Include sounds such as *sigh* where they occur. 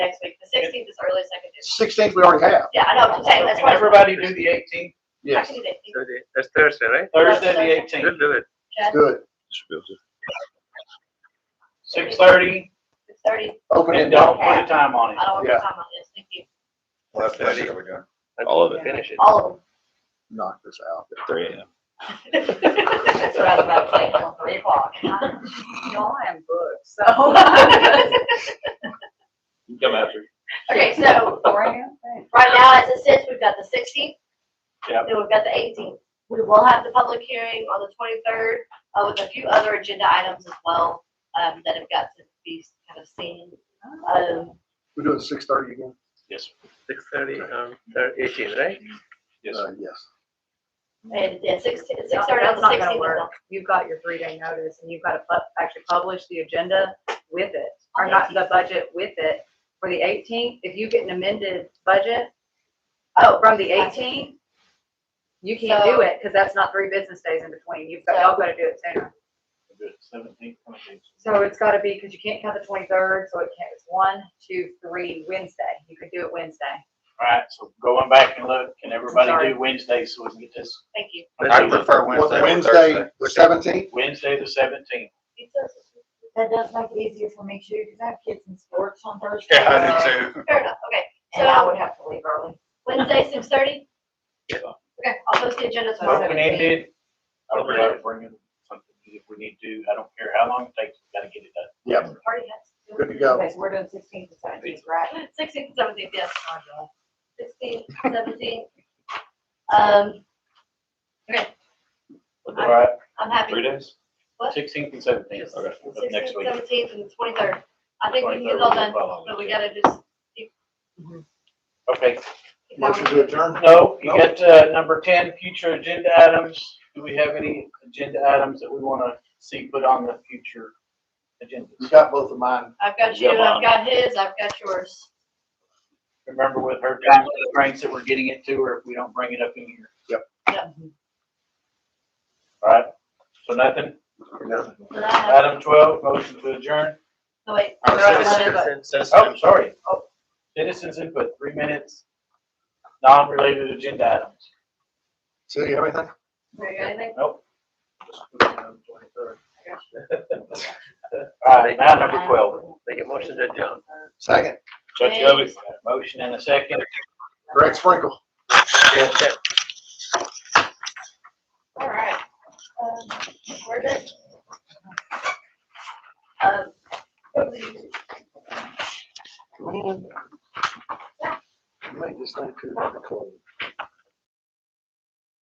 sixteenth we already have. Yeah, I know what you're saying, that's Can what. everybody do the eighteenth, Yes, Actually, they- Thursday- That's Thursday, right? Thursday the eighteenth, We'll do it. Jeff, good. six thirty, it's thirty, Open and it don't up. put a time on it. I don't want Yeah. to time on this, thank you, Left that shit we done. All of it. Finish it. all of them. *laughs* Knock this out. Three AM. That's what I was about to say, till three o'clock. No, I am booked, so. *laughs* You can come after. Okay, so Four AM, thanks. right now, as it sits, we've got the sixteenth. Yep. Then we've got the eighteenth. We will have the public hearing on the twenty-third, uh, with a few other agenda items as well, um, that have got to be kind of seen. Um, We're doing six thirty again? Six thirty, um, thir- eighteen, right? Yes. Uh, Yes. and then sixteen, six That's thirty on the not gonna sixteenth. work. You've got your three-day notice and you've got to pu- actually publish the agenda with it, or not the budget with it. For the eighteenth, if you get an amended budget, oh, from the I see. eighteenth, you can't So- do it because that's not three business days in between. You've got, y'all got to do it sooner. Seventeenth, twenty-eighth. So it's got to be, because you can't count the twenty-third, so it can't, it's one, two, three, Wednesday. You could do it Wednesday. All right, so going back and look, can everybody Sorry. do Wednesday so we can get this Thank you. I prefer Wednesday. Wednesday, the seventeenth? Wednesday the seventeenth? That does make it easier for me too, because I have kids in sports on Thursday. Yeah, I do too. Fair enough, okay. And I So would have to leave early. Wednesday, six thirty? Yeah. Okay, I'll post the agenda tomorrow. Open-ended. I would Open-ended. rather bring in something if we need to. I don't care how long it takes, we gotta get it done. Yep, Party hats. good to go. Okay, so we're doing sixteen to seventeen, right? Sixteenth and seventeenth, yes. Sixteenth, seventeenth. Um, All right, I'm happy. Three days? What? sixteenth and seventeenth of Okay. next Sixteenth, week. seventeenth, and twenty-third. I think we can get it 23rd all done, will but we follow. gotta just. Okay, Motion to adjourn? no, you No. got, uh, number ten, future agenda items. Do we have any agenda items that we wanna see put on the future You agendas? got both of mine. I've got you, Yeah, mine. I've got his, I've got yours. Remember with her, down the ranks that we're getting it to, or if we don't bring it up in here. Yep. Yep. All right, so nothing. But I have- Item twelve, motion to adjourn. No, wait. Our They're on citizens- the agenda. Citizen- citizen Oh, input. sorry. Citizens input, three minutes, non-related agenda items. See, you have anything? There you go, anything? Nope. *laughs* All right, now number twelve. Make a motion to adjourn. Second, Judge Joey. Motion and a second. Greg Sprinkle. All right. Um, We're good. Um, You might just think too.